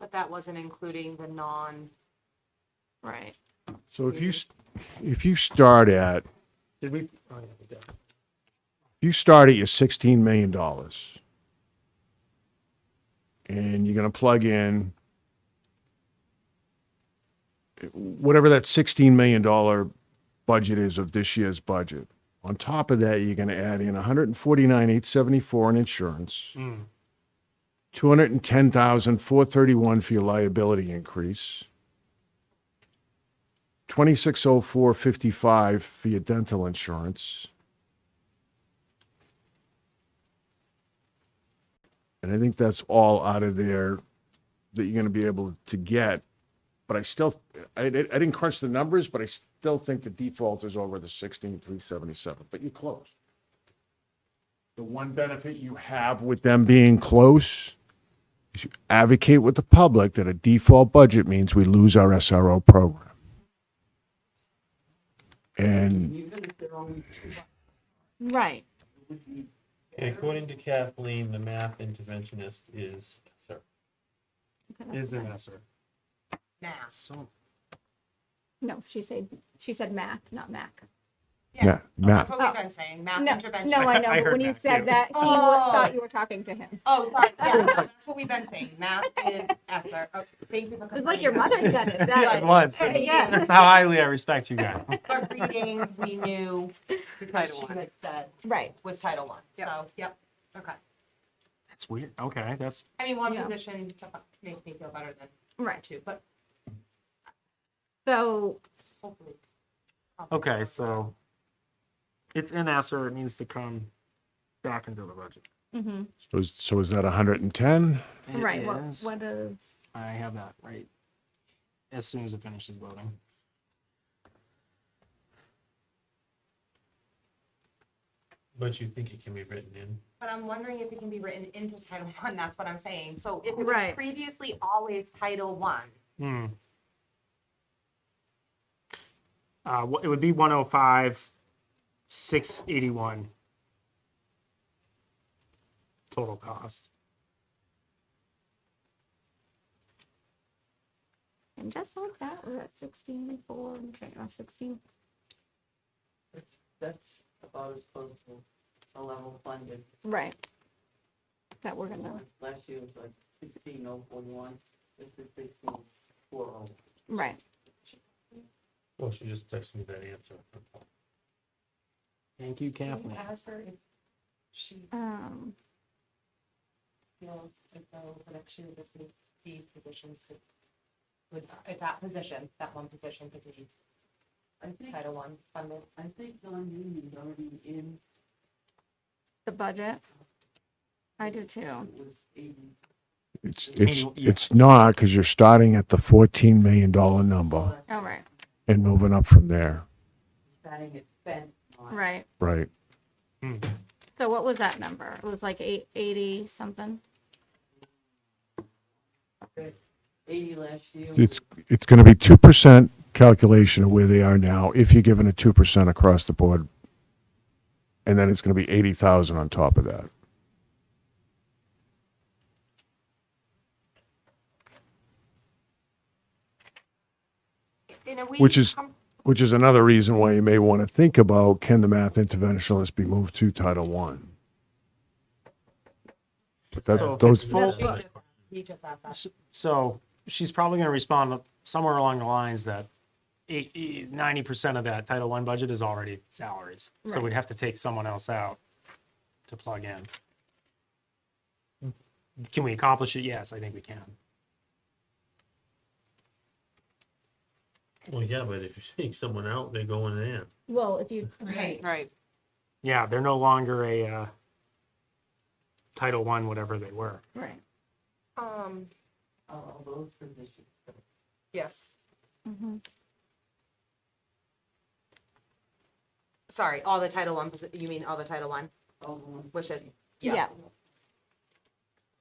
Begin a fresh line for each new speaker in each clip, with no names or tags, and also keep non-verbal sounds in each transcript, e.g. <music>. but that wasn't including the non. Right.
So if you, s- if you start at, if
Did we? oh, yeah, we did.
you start at your sixteen million dollars and you're gonna plug in whatever that sixteen million dollar budget is of this year's budget. On top of that, you're gonna add in 149,874 hundred and forty-nine, eight seventy-four in insurance.
Hmm.
Mm.
Two hundred and ten thousand, four thirty-one for your liability increase. Twenty-six oh four fifty-five for your dental insurance. And I think that's all out of there that you're gonna be able to get. But I still, I, I didn't crunch the numbers, but I still think the default is over the sixteen three seventy-seven, but you're close. The one benefit you have with them being close is you advocate with the public that a default budget means we lose our SRO program. And
Right.
According to Kathleen, the math interventionist is, sir.
Is an answer. So,
No, she said, she said Mac, not Mac.
yeah,
That's
Matt,
what we've been saying, math
No,
intervention.
no, I
<laughs> I
know, but
heard
when you
Mac, too.
said that, he
Oh.
wa- thought you were talking to him.
Oh,
<laughs>
sorry, yeah, no, that's what we've been saying, math is Esther. Oh, Thank you for.
It's like your mother said
<laughs>
it,
it
that,
was.
Yeah.
That's how highly I respect you guys.
But reading, we knew
Title
she
one.
had said
right.
was Title One, so, yep, okay.
<laughs> That's weird. Okay, that's
I mean, one
Yeah.
position makes me feel better than
Right.
two, but
So,
hopefully.
okay. So it's in ESSER. It needs to come back into the budget.
mhm,
so is, so is that hundred and ten?
It
right, what,
is-
what is,
I have that right as soon as it finishes loading.
But you think it can be written in?
But I'm wondering if it can be written into Title One, that's what I'm saying. So if it was
Right.
previously always Title One,
Hmm. Uh, wh- it would be 105, 681 total cost.
and just like that, we're at sixteen and four, and okay, off sixteen,
That's about as close to a level funded.
right. That we're gonna,
Last year was like sixteen oh forty-one, this is sixteen four oh.
right,
Well, she just texted me that answer.
Thank you,
Can
Kathleen.
you ask her if she
um,
feels as though next year this is these positions could,
would- if that position, that one position could be
I think,
Title One funded.
I think non-union's already in,
the budget. I do too,
it was eighty,
It's, it's,
Annual- yeah.
it's not, because you're starting at the fourteen million dollar number
all right,
and moving up from there,
starting at spent. not-
right.
right?
So what was that number? It was like eight eighty something?
but Eighty last year.
It's, it's gonna be two percent calculation of where they are now, if you're given a two percent across the board. And then it's gonna be eighty thousand on top of that.
In a way,
Which is-
com-
Which is another reason why you may want to think about, can the math interventionist be moved to Title One? But
So if
that, those,
it's
no,
full-
she just- He just asked that.
S- So she's probably going to respond somewhere along the lines that eight- eight- 90% of that Title I budget is already salaries. So
Right.
we'd have to take someone else out to plug in. Can we accomplish it? Yes, I think we can.
Well, yeah, but if you <laughs> take someone out, they're going in.
Well, if you.
Right, right.
Yeah, they're no longer a uh, Title One, whatever they were.
Right.
Um,
Uh, All those positions.
yes,
Mhm.
sorry, all the Title One, posi- you mean all the Title One,
all the ones-
which is,
Yeah,
yeah.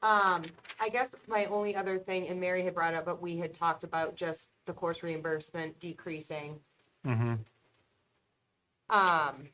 Um, I guess my only other thing, and Mary had brought up, but we had talked about just the course reimbursement decreasing.
Mm-hmm.
Um,